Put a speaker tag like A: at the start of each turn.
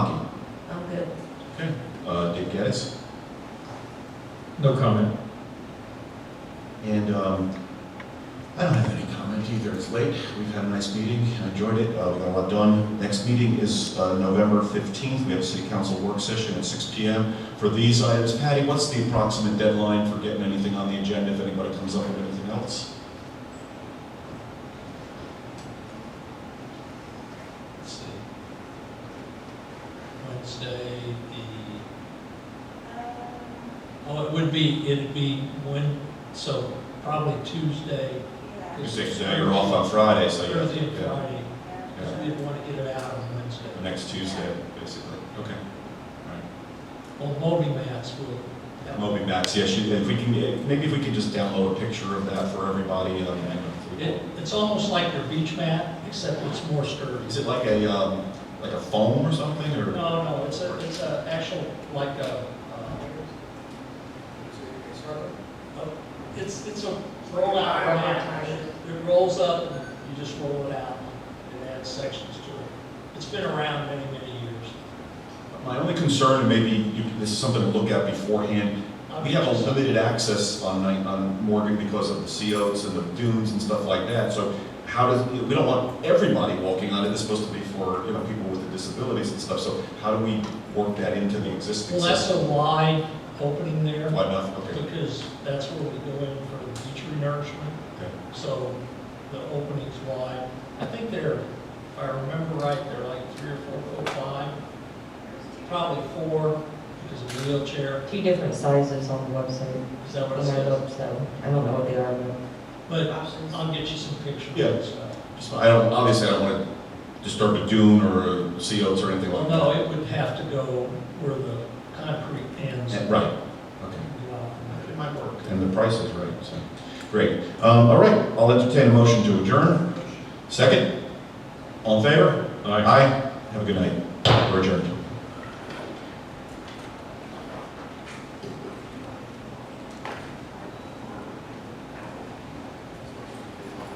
A: Uh, Yes.
B: No comment.
A: And um, I don't have any comment either. It's late. We've had a nice meeting. I enjoyed it. Uh, We got a lot done. Next meeting is uh, November 15th. We have a city council work session at 6 PM for these items. Patty, what's the approximate deadline for getting anything on the agenda if anybody comes up with anything else?
C: Let's see. Wednesday, the, oh, it would be, it'd be when, so probably Tuesday.
A: You say You're off on Friday, so you're.
C: Thursday and
A: Oh, yeah,
C: Friday,
A: yeah.
C: because we didn't want to get it out on Wednesday.
A: Next Tuesday, basically. Okay.
C: Well, Moby Mats will. help.
A: Moby Max, yes, you- if we can, get- maybe if we could just download a picture of that for everybody. um, and if we-
C: It, it's almost like your beach mat, except it's more sturdy.
A: Is it like a, um, like a foam or something, or?
C: No, no, it's a, it's a actual, like uh, a, uh, it's, it's a roll out mat. It rolls up, and you just roll it out, and add sections to it. It's been around many, many years.
A: My only concern, and maybe you, this is something to look at beforehand, we have a limited access on, Ni- on Morgan because of the sea oats and the dunes and stuff like that, so how does, we don't want everybody walking on it, it's supposed to be for, you know, people with disabilities and stuff, so how do we work that into the existing
C: Well, that's a
A: system?
C: wide opening there,
A: Why not, okay,
C: because that's where we go in for the beach renourishment.
A: okay.
C: So the opening's wide. I think they're, if I remember right, they're like three or four foot wide, probably four because of the wheelchair.
D: Two different sizes on the website,
C: Is that what it
D: when I
C: says?
D: looked, so I don't know what they are, but.
C: But I'll get you some pictures.
A: Yeah.
C: So-
A: Just- I don't, obviously, I don't wanna disturb a dune or a sea oats or anything
C: Well,
A: like
C: no,
A: that.
C: it would have to go where the concrete ends.
A: Yeah, Right, okay.
C: Well,
A: It might work. And the price is right, so, great. Um, all right, I'll entertain a motion to adjourn. Second? All in favor? Aye. Have a good night. We're adjourned.